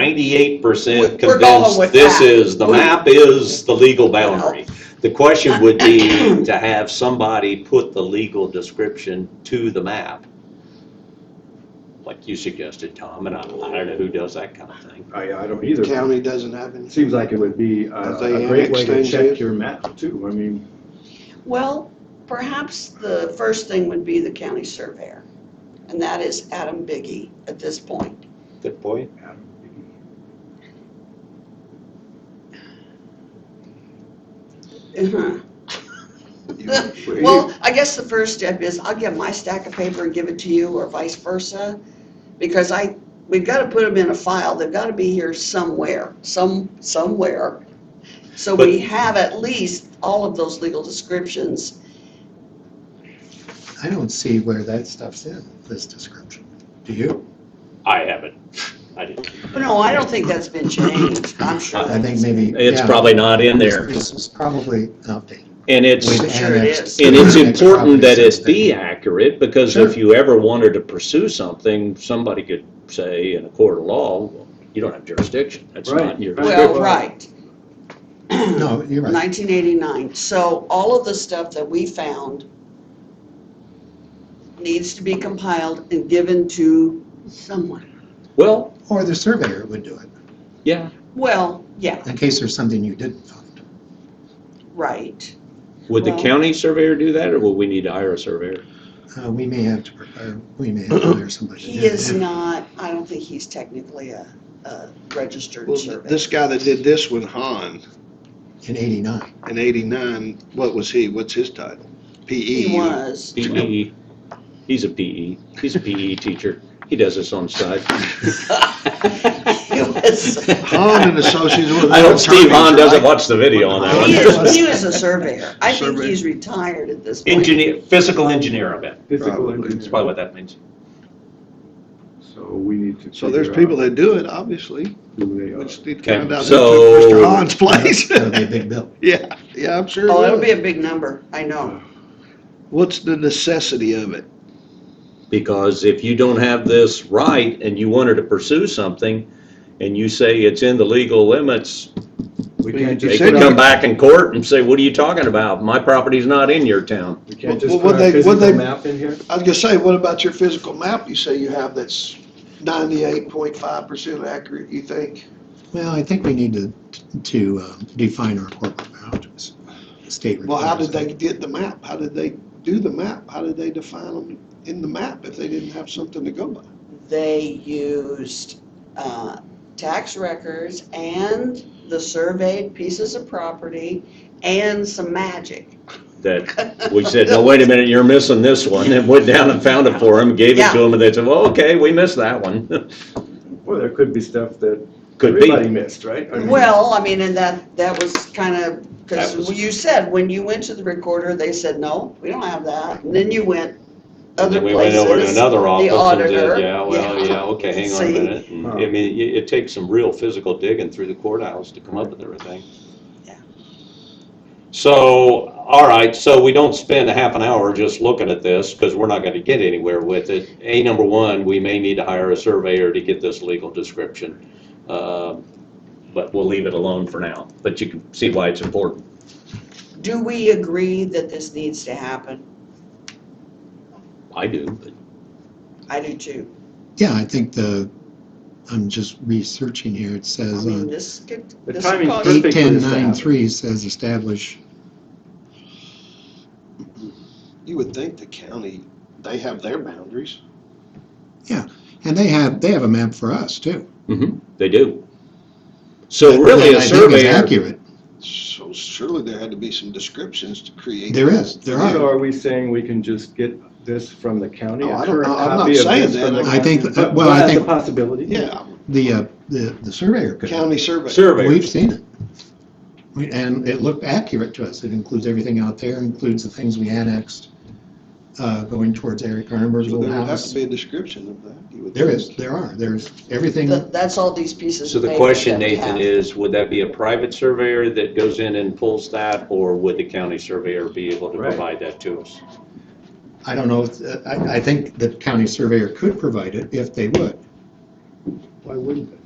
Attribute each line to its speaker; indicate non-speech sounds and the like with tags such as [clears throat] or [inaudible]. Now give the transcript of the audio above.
Speaker 1: ninety-eight percent
Speaker 2: We're going
Speaker 1: convinced
Speaker 2: with
Speaker 1: this
Speaker 2: that.
Speaker 1: is, the map is the legal boundary. The question would
Speaker 2: [clears throat]
Speaker 1: be to have somebody put the legal description to the map, like you suggested, Tom, and I, I don't know who does that kind of thing.
Speaker 3: I, I don't
Speaker 4: The
Speaker 3: either.
Speaker 4: county doesn't have any.
Speaker 3: Seems like it would be a,
Speaker 4: Have they
Speaker 3: a great way to
Speaker 4: annexed
Speaker 3: check
Speaker 4: things
Speaker 3: your map too. I mean,
Speaker 2: Well, perhaps the first thing would be the county surveyor, and that is Adam Biggie at this point.
Speaker 1: Good point.
Speaker 2: [laughs] Uh-huh. Well, I guess the first step is I'll get my stack of paper and give it to you or vice versa. Because I, we've got to put them in a file. They've got to be here somewhere, some, somewhere. So we
Speaker 1: But-
Speaker 2: have at least all of those legal descriptions.
Speaker 5: I don't see where that stuff's in this description. Do you?
Speaker 1: I haven't, I didn't.
Speaker 2: But no, I don't think that's been changed, I'm sure.
Speaker 5: I think maybe.
Speaker 6: It's
Speaker 5: yeah,
Speaker 6: probably not in there.
Speaker 5: This is probably an update.
Speaker 6: And it's,
Speaker 5: We've
Speaker 2: sure it
Speaker 5: annexed-
Speaker 2: is.
Speaker 6: and it's
Speaker 5: annexed
Speaker 6: important that it
Speaker 5: properties since
Speaker 6: be
Speaker 5: then.
Speaker 6: accurate, because if you ever wanted to pursue something, somebody could say in a court of law, you don't have jurisdiction, that's
Speaker 3: Right.
Speaker 6: not your.
Speaker 3: Right.
Speaker 2: Well, right.
Speaker 5: No, you're right.
Speaker 2: 1989. So all of the stuff that we found needs to be compiled and given to someone.
Speaker 6: Well,
Speaker 5: Or the surveyor would do it,
Speaker 6: yeah,
Speaker 2: Well, yeah,
Speaker 5: in case there's something you didn't find.
Speaker 2: right.
Speaker 6: would the
Speaker 2: Well-
Speaker 6: county surveyor do that, or would we need to hire a surveyor?
Speaker 5: Uh, we may have to prepare, we may have to hire somebody. to
Speaker 2: He
Speaker 5: do it.
Speaker 2: is not, I don't think he's technically a, a registered
Speaker 4: Well,
Speaker 2: surveyor.
Speaker 4: this guy that did this with Han
Speaker 5: In eighty-nine.
Speaker 4: in eighty-nine, what was he, what's his title? E PE?
Speaker 2: He
Speaker 4: [laughs]
Speaker 2: was.
Speaker 6: PE, E. he's a PE, he's a PE teacher, he does this on the
Speaker 2: [laughs]
Speaker 6: side.
Speaker 2: He was,
Speaker 4: Han and Associates. was
Speaker 6: I hope Steve
Speaker 4: attorney,
Speaker 6: Hahn doesn't
Speaker 4: right?
Speaker 6: watch the video on that
Speaker 2: he
Speaker 6: one.
Speaker 2: is, he was a surveyor. I think
Speaker 4: Surveyor.
Speaker 2: he's retired at this point.
Speaker 1: Engineer, physical engineer, I bet,
Speaker 3: physical
Speaker 4: Probably.
Speaker 1: that's probably
Speaker 3: engineering.
Speaker 1: what that means.
Speaker 3: So we need to.
Speaker 4: So there's
Speaker 3: figure
Speaker 4: people
Speaker 3: out
Speaker 4: that do it, obviously.
Speaker 3: who they
Speaker 4: We
Speaker 3: are.
Speaker 4: just need to find
Speaker 6: Okay,
Speaker 4: out who
Speaker 6: so-
Speaker 4: took Mr.
Speaker 6: [laughs]
Speaker 4: Han's place. [laughs]
Speaker 5: That would be a big bill.
Speaker 4: Yeah, yeah, I'm sure. it
Speaker 2: Oh, it'll
Speaker 4: was.
Speaker 2: be a big number, I know.
Speaker 4: What's the necessity of it?
Speaker 6: Because if you don't have this right and you wanted to pursue something and you say it's in the legal limits,
Speaker 3: We can't
Speaker 6: they
Speaker 3: just.
Speaker 4: said
Speaker 6: could
Speaker 3: put
Speaker 6: come
Speaker 3: our-
Speaker 6: back in court and say, what are you talking about? My property's not in your town.
Speaker 3: We can't just
Speaker 4: Well,
Speaker 3: put
Speaker 4: what
Speaker 3: our
Speaker 4: they-
Speaker 3: physical
Speaker 4: what they-
Speaker 3: map in here?
Speaker 4: I was gonna say, what about your physical map you say you have that's ninety-eight point five percent accurate, you think?
Speaker 5: Well, I think we need to, to um, define our corporate boundaries. The State.
Speaker 4: Well, how did
Speaker 5: requires
Speaker 4: they get the map? How did they do the map? How did they define them in the map if they didn't have something to go by?
Speaker 2: They used, uh, tax records and the surveyed pieces of property and some magic.
Speaker 6: That we said, no, wait a minute, you're missing this one. And went down and found it for him, gave it to him, and they said, well, okay, we missed that one. [laughs]
Speaker 3: Well, there could be stuff that
Speaker 6: Could
Speaker 3: everybody
Speaker 6: be.
Speaker 3: missed, right?
Speaker 1: Mm-hmm.
Speaker 3: I mean,
Speaker 2: Well, I mean, and that, that was kind of,
Speaker 6: That was-
Speaker 2: because you said, when you went to the recorder, they said, no, we don't have that. And then you went
Speaker 1: And
Speaker 2: other
Speaker 1: then we went over to
Speaker 2: places.
Speaker 1: another office and
Speaker 2: auditor,
Speaker 1: did, yeah, well,
Speaker 2: yeah.
Speaker 1: yeah, okay, hang on a
Speaker 2: See?
Speaker 1: minute. And, I
Speaker 3: Huh.
Speaker 1: mean, it, it takes some real physical digging through the courthouse to come up with everything.
Speaker 2: Yeah.
Speaker 1: So, all right, so we don't spend a half an hour just looking at this because we're not going to get anywhere with it. A, number one, we may need to hire a surveyor to get this legal description. Um, But we'll leave it alone for now, but you can see why it's important.
Speaker 2: Do we agree that this needs to happen?
Speaker 6: I do, but
Speaker 2: I do too.
Speaker 5: Yeah, I think the, I'm just researching here, it
Speaker 2: I
Speaker 5: says
Speaker 2: mean,
Speaker 5: on
Speaker 2: this could,
Speaker 3: The
Speaker 2: this
Speaker 3: timing's
Speaker 2: could,
Speaker 3: perfect.
Speaker 5: eight ten
Speaker 3: for this to
Speaker 5: nine
Speaker 3: happen.
Speaker 5: three says establish,
Speaker 4: You would think the county, they have their boundaries.
Speaker 5: and they have, they have a map for us too.
Speaker 2: Mm-hmm.
Speaker 6: they do. So
Speaker 5: That-
Speaker 6: really,
Speaker 5: that
Speaker 6: a
Speaker 5: I think is
Speaker 6: surveyor,
Speaker 5: Accurate,
Speaker 4: So surely there had to be some descriptions to create.
Speaker 5: there is, there
Speaker 3: So
Speaker 5: are.
Speaker 3: are we saying we can just get this from the county?
Speaker 4: Oh,
Speaker 3: a
Speaker 4: I don't-
Speaker 3: current
Speaker 4: I'm not
Speaker 3: copy of
Speaker 4: saying
Speaker 3: this
Speaker 4: that.
Speaker 3: from the
Speaker 4: I
Speaker 5: think
Speaker 3: county?
Speaker 5: that-
Speaker 3: But-
Speaker 5: well,
Speaker 3: but
Speaker 5: I
Speaker 3: that's a
Speaker 5: think-
Speaker 3: possibility.
Speaker 4: Yeah,
Speaker 5: The, uh, the, the surveyor could,
Speaker 4: county survey.
Speaker 1: Surveyor,
Speaker 5: we've seen it. We- And it looked accurate to us, it includes everything out there, includes the things we annexed, uh, going towards Eric Garnberg's
Speaker 4: So
Speaker 5: old
Speaker 4: there would have to
Speaker 5: house.
Speaker 4: be a description of that. you would
Speaker 5: There
Speaker 4: think.
Speaker 5: is, there are, there's everything,
Speaker 2: th- that's all these pieces
Speaker 1: so
Speaker 2: of
Speaker 1: the
Speaker 2: paper
Speaker 1: question,
Speaker 2: that we
Speaker 1: Nathan,
Speaker 2: have.
Speaker 1: is would that be a private surveyor that goes in and pulls that? Or would the county surveyor be able to
Speaker 3: Right.
Speaker 1: provide that to us?
Speaker 5: I don't know, if- I, I think the county surveyor could provide it if they would.
Speaker 3: Why wouldn't they?